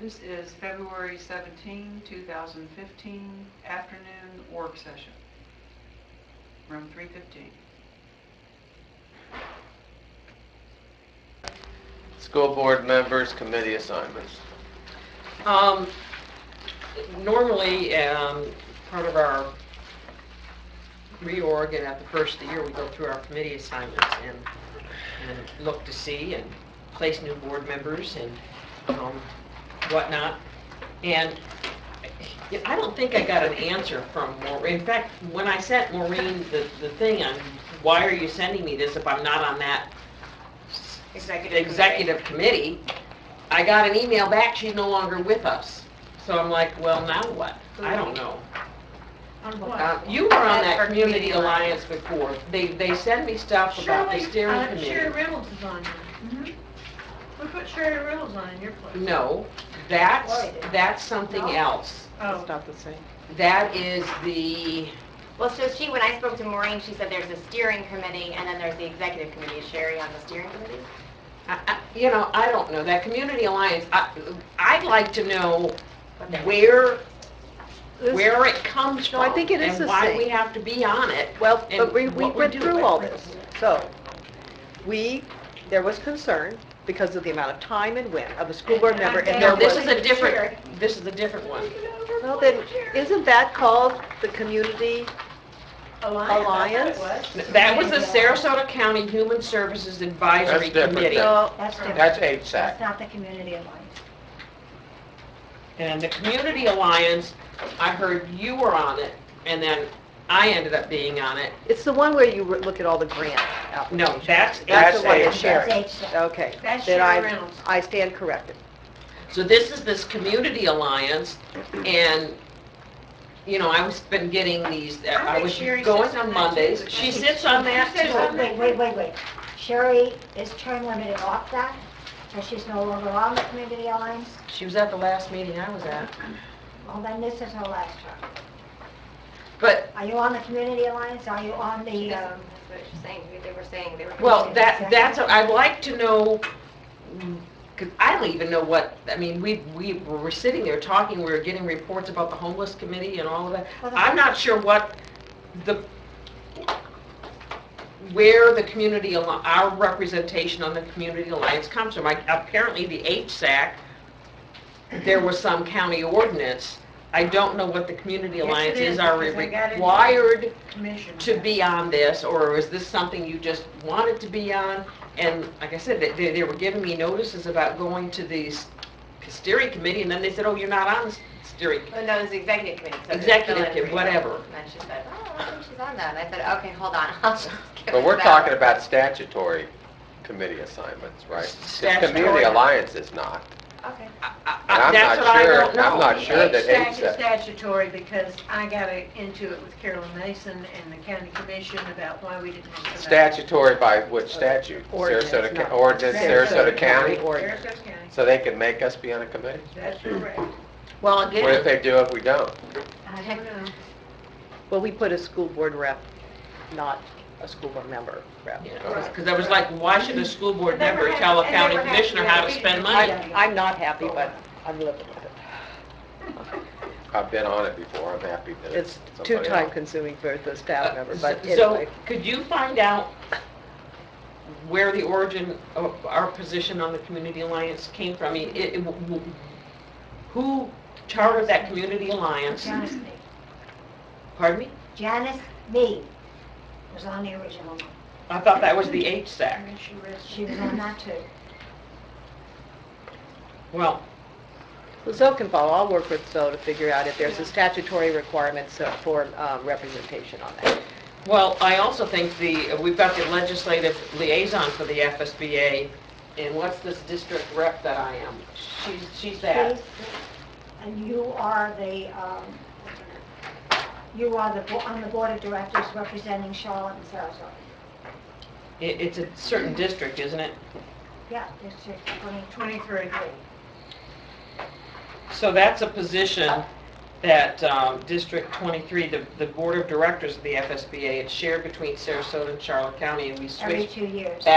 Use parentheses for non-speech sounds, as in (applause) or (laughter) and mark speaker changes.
Speaker 1: This is February 17, 2015, afternoon work session, room 315.
Speaker 2: School board members, committee assignments.
Speaker 3: Um, normally, um, part of our reorg and at the first of the year, we go through our committee assignments and, and look to see and place new board members and, um, whatnot. And yeah, I don't think I got an answer from Maureen. In fact, when I sent Maureen the, the thing on, why are you sending me this if I'm not on that
Speaker 4: Executive.
Speaker 3: executive committee, I got an email back, she's no longer with us. So I'm like, well, now what? I don't know.
Speaker 4: On
Speaker 3: Uh,
Speaker 4: what?
Speaker 3: You were on
Speaker 4: That's our
Speaker 3: that Community
Speaker 4: community alliance.
Speaker 3: Alliance before. They, they send me stuff about the
Speaker 4: Shirley,
Speaker 3: steering
Speaker 4: uh, Sherry
Speaker 3: committee.
Speaker 4: Reynolds is on there. We put Sherry Reynolds on in your place.
Speaker 3: No, that's,
Speaker 4: Why did-
Speaker 3: that's something
Speaker 4: No?
Speaker 3: else.
Speaker 4: Oh,
Speaker 5: not the same.
Speaker 3: That is the,
Speaker 6: Well, so she, when I spoke to Maureen, she said there's a steering committee and then there's the executive committee. Is Sherry on the steering committee?
Speaker 3: I- I- you know, I don't know, that Community Alliance, I, I'd like to know
Speaker 6: What they're-
Speaker 3: where, where it comes from.
Speaker 5: No, I think it is the
Speaker 3: And why
Speaker 5: same.
Speaker 3: we have to be on it.
Speaker 5: Well,
Speaker 3: and
Speaker 5: but we, we
Speaker 3: what we
Speaker 5: went
Speaker 3: do
Speaker 5: through
Speaker 3: with
Speaker 5: all
Speaker 3: it.
Speaker 5: this. So, we, there was concern because of the amount of time and wind of a school board member, and there
Speaker 3: No, this
Speaker 5: was...
Speaker 3: is a different, this is a different one.
Speaker 5: Well, then, isn't that called the community?
Speaker 4: Alliance, I thought
Speaker 5: Alliance?
Speaker 4: it was.
Speaker 3: That was the Sarasota County Human Services
Speaker 2: That's
Speaker 3: Advisory
Speaker 2: different.
Speaker 3: Committee.
Speaker 5: No,
Speaker 7: That's different.
Speaker 2: That's
Speaker 7: That's
Speaker 2: HSAC.
Speaker 7: not the community alliance.
Speaker 3: And the Community Alliance, I heard you were on it, and then I ended up being on it.
Speaker 5: it's the one where you re- look at all the grant applications.
Speaker 3: No, that's
Speaker 5: That's the one that
Speaker 2: HSAC.
Speaker 5: Sherry.
Speaker 7: That's HSAC.
Speaker 5: Okay.
Speaker 4: That's
Speaker 5: Then
Speaker 4: Sherry
Speaker 5: I-
Speaker 4: Reynolds.
Speaker 5: I stand corrected.
Speaker 3: So this is this community alliance, and, you know, I was been getting these, uh, I
Speaker 4: think
Speaker 3: was
Speaker 4: Sherry
Speaker 3: going
Speaker 4: sits on
Speaker 3: on
Speaker 4: that too.
Speaker 3: Mondays.
Speaker 4: I
Speaker 3: She
Speaker 4: think
Speaker 3: sits on
Speaker 4: she
Speaker 3: that
Speaker 4: sits on
Speaker 3: too.
Speaker 4: that.
Speaker 7: Wait, wait, wait, wait. Sherry is term limited off that, so she's no longer on the community alliance.
Speaker 3: She was at the last meeting I was at.
Speaker 7: Well, then this is her last term.
Speaker 3: But,
Speaker 7: Are you on the community alliance? Are you on the,
Speaker 6: That's
Speaker 7: um,
Speaker 6: what she's saying. They were saying they were.
Speaker 3: well, that, that's, I'd like to know, because I don't even know what, I mean, we, we were sitting there talking, we were getting reports about the homeless committee and all of that.
Speaker 7: well, the-
Speaker 3: I'm not sure what the, where the community, al- our representation on the community alliance comes from. Like, Apparently, the HSAC, there was some county ordinance. I don't know what the community
Speaker 4: Yes, it
Speaker 3: alliance
Speaker 4: is,
Speaker 3: is. Are we
Speaker 4: because I got it.
Speaker 3: required
Speaker 4: Commission.
Speaker 3: to be on this, or is this something you just wanted to be on? And like I said, they, they were giving me notices about going to the s- steering committee, and then they said, oh, you're not on the steering. committee."
Speaker 6: Well, Oh, no, it was the executive committee. so it's
Speaker 3: Executive
Speaker 6: Bill and
Speaker 3: committee,
Speaker 6: Rita.
Speaker 3: whatever.
Speaker 6: And then she said, oh, I think she's on that. And I said, okay, hold on. (laughs) I'll just give
Speaker 2: But
Speaker 6: it
Speaker 2: we're
Speaker 6: to
Speaker 2: talking
Speaker 6: Valerie."
Speaker 2: about statutory committee assignments, right? 'Cause
Speaker 3: Statutory.
Speaker 2: Community alliance is not.
Speaker 6: Okay.
Speaker 3: I- I-
Speaker 2: And
Speaker 3: I-
Speaker 2: I'm
Speaker 3: That's
Speaker 2: not
Speaker 3: what I
Speaker 2: sure-
Speaker 3: don't know.
Speaker 2: I'm not sure that
Speaker 4: HSAC is
Speaker 2: HSAC
Speaker 4: statutory because I got into it with Carolyn Mason and the county commission about why we didn't. have somebody-
Speaker 2: Statutory by which statute?
Speaker 5: Ordinance,
Speaker 2: Sarasota,
Speaker 5: not-
Speaker 2: Ca- ordinance, Sarasota County?
Speaker 5: Ordinance.
Speaker 4: Sarasota County,
Speaker 2: So they can make us be on a committee?
Speaker 4: that's correct.
Speaker 3: Well,
Speaker 2: What if
Speaker 3: again,
Speaker 2: they do if we don't?
Speaker 4: I don't know.
Speaker 5: Well, we put a school board rep, not a school board member rep.
Speaker 3: because I was like, why should a school board member tell a county commissioner how to spend money?
Speaker 5: I'm, I'm not happy, but I'm living with it.
Speaker 2: I've been on it before, I'm happy that it's
Speaker 5: It's
Speaker 2: somebody
Speaker 5: too
Speaker 2: else.
Speaker 5: time consuming for the staff member, but
Speaker 3: Uh, So,
Speaker 5: anyway.
Speaker 3: could you find out where the origin of our position on the Community Alliance came from? I mean, it- it- w- w- who chartered that Community Alliance?
Speaker 7: Janice Me?
Speaker 3: Pardon me?
Speaker 7: Janice Me was on the original one.
Speaker 3: I thought that was the HSAC.
Speaker 4: And she rests.
Speaker 7: She was on that too.
Speaker 3: Well,
Speaker 5: Well, Zoe can follow, I'll work with Zoe to figure out if there's a statutory requirement so- for um, representation on that.
Speaker 3: Well, I also think the, we've got the legislative liaison for the FSBA, and what's this district rep that I am? She's, she's that.
Speaker 7: And you are the, um, you are the, bo- on the board of directors representing Charlotte and Sarasota.
Speaker 3: It, it's a certain district, isn't it?
Speaker 7: Yeah, District 2020.
Speaker 4: Twenty-three.
Speaker 3: So that's a position that, um, District 23, the, the board of directors of the FSBA, it's shared between Sarasota and Charlotte County, and we
Speaker 7: every
Speaker 3: switched
Speaker 7: two years.